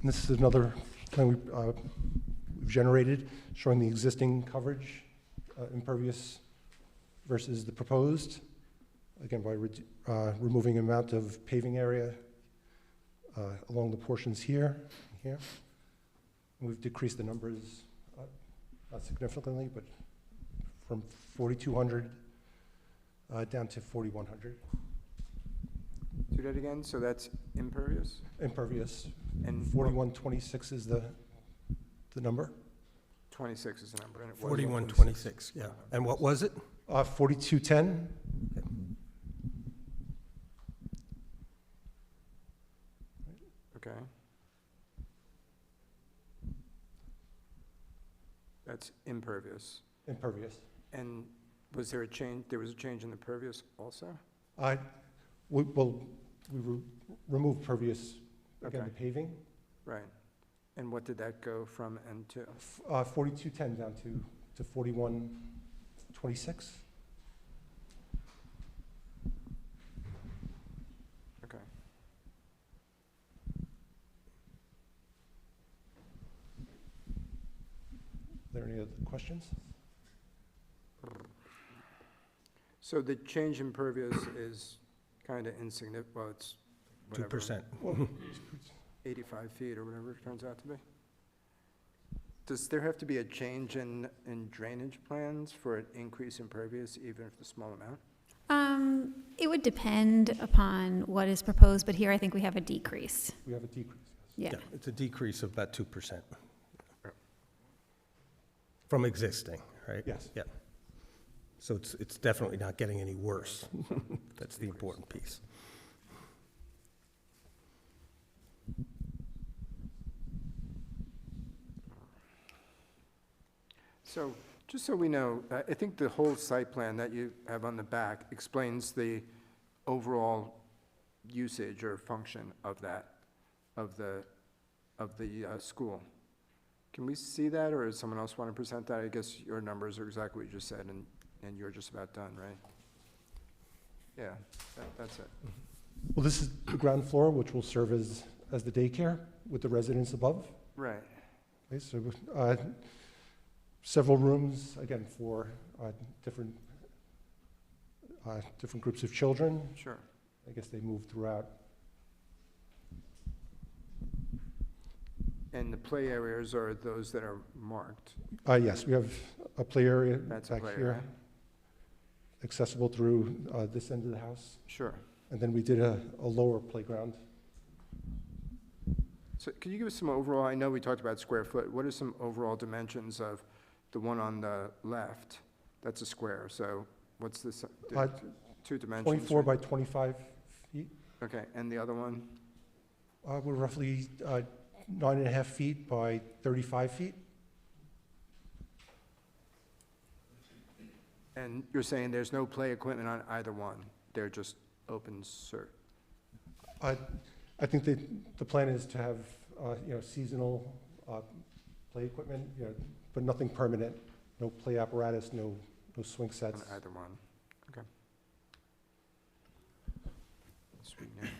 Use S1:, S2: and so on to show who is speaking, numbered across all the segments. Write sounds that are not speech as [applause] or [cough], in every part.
S1: And this is another plan we, uh, we've generated showing the existing coverage, uh, impervious versus the proposed. Again, by redu- uh, removing amount of paving area uh, along the portions here, and here. And We've decreased the numbers, uh, not significantly, but from 4,200 uh, down to 4,100
S2: Do that again, so that's impervious?
S1: impervious.
S2: And what-
S1: 4126 is the, the number.
S2: Twenty-six is the number, and it was.
S3: Forty-one twenty-six, yeah. And what was it?
S1: Uh, 4210,
S2: Okay. That's impervious.
S1: impervious.
S2: And was there a change, there was a change in the pervious also?
S1: I, we, well, we re- removed pervious, again, the
S2: Okay.
S1: paving,
S2: Right. And what did that go from and to?
S1: F- uh, 4210 down to, to 4126.
S2: Okay.
S1: Are there any other questions?
S2: So the change in pervious is kind of insignificant, well, it's
S3: Two
S2: whatever.
S3: percent. [laughs]
S2: Eighty-five feet or whatever it turns out to be. Does there have to be a change in, in drainage plans for an increase in pervious, even if the small amount?
S4: Um, it would depend upon what is proposed, but here I think we have a decrease.
S1: We have a decrease.
S4: Yeah.
S3: It's a decrease of about two percent.
S2: Yeah.
S3: From existing, right?
S1: Yes.
S3: Yeah. So it's, it's definitely not getting any worse. [laughs] That's the important piece.
S2: So, just so we know, uh, I I think the whole site plan that you have on the back explains the overall usage or function of that, of the, of the uh, school. Can we see that, or does someone else want to present that? I guess your numbers are exactly what you just said, and, and you're just about done, right? Yeah, that- that's it.
S1: Well, this is the ground floor, which will serve as, as the daycare with the residents above.
S2: Right.
S1: Okay, so, uh, several rooms, again, for, uh, different, uh, different groups of children.
S2: Sure.
S1: I guess they move throughout.
S2: And the play areas are those that are marked.
S1: Uh, yes, we have a play area
S2: That's a
S1: back
S2: play area.
S1: here, accessible through, uh, this end of the house.
S2: Sure.
S1: And then we did a, a lower playground.
S2: So can you give us some overall, I know we talked about square foot, what are some overall dimensions of the one on the left? That's a square, so what's this, uh, di-
S1: Uh,
S2: two dimensions?
S1: twenty-four
S2: right?
S1: by twenty-five feet,
S2: Okay, and the other one,
S1: uh, we're roughly, uh, nine and a half feet by thirty-five feet.
S2: and you're saying there's no play equipment on either one? They're just open cert?
S1: I, I think that the plan is to have, uh, you know, seasonal, uh, play equipment, you know, but nothing permanent, no play apparatus, no, no swing
S2: On
S1: sets.
S2: either one, okay. Sweet name.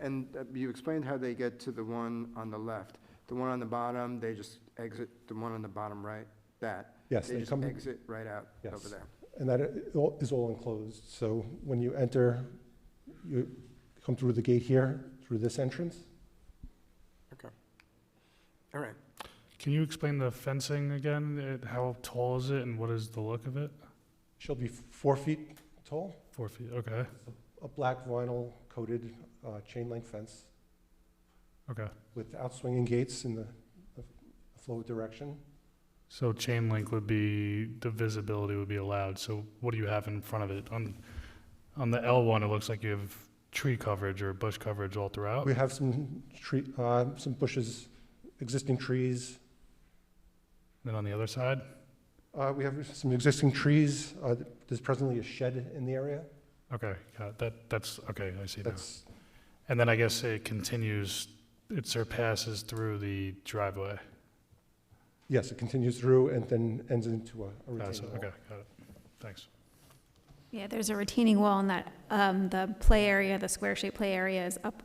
S2: And uh, you explained how they get to the one on the left. The one on the bottom, they just exit, the one on the bottom right, that,
S1: Yes,
S2: They
S1: they
S2: just
S1: come,
S2: exit right out over
S1: Yes.
S2: there.
S1: and that i- all- is all enclosed, so when you enter, you come through the gate here, through this entrance.
S2: All right.
S5: Can you explain the fencing again? It- How tall is it and what is the look of it?
S1: She'll be four feet tall,
S5: Four feet, okay,
S1: a black vinyl coated, uh, chain link fence
S5: okay.
S1: with outswinging gates in the, the flow direction.
S5: So chain link would be, the visibility would be allowed, so what do you have in front of it? On, on the L one, it looks like you have tree coverage or bush coverage all throughout.
S1: We have some tree, uh, some bushes, existing trees.
S5: Then on the other side,
S1: Uh, we have some existing trees. Uh, there's presently a shed in the area.
S5: okay, got it. that, that's, okay, I see now.
S1: That's,
S5: And then I guess it continues, it surpasses through the driveway.
S1: yes, it continues through and then ends into a a
S5: Uh,
S1: retaining
S5: so-
S1: wall.
S5: Okay, got it, thanks.
S4: Yeah, there's a retaining wall and that, um, the play area, the square-shaped play area is up